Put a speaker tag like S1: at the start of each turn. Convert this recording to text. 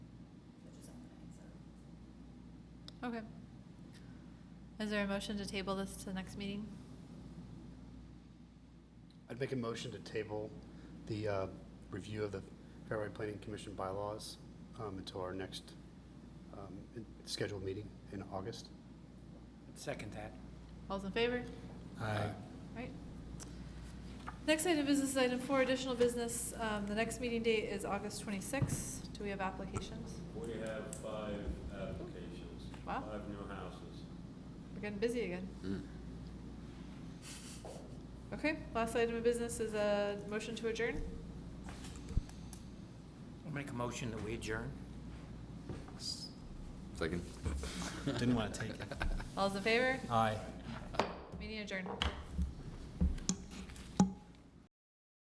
S1: Okay. Is there a motion to table this to the next meeting?
S2: I'd make a motion to table the uh, review of the Fairway Planning Commission bylaws um, until our next um, in- scheduled meeting in August.
S3: Second that.
S1: All's in favor?
S3: Aye.
S1: Right. Next item of business, item four, additional business. Um, The next meeting date is August 26th. Do we have applications?
S4: We have five applications,
S1: Wow.
S4: five new houses.
S1: We're getting busy again. Okay, last item of business is a motion to adjourn.
S3: I'll make a motion that we adjourn.
S5: Second.
S6: Didn't want to take it.
S1: All's in favor?
S6: Aye.
S1: Meeting adjourned.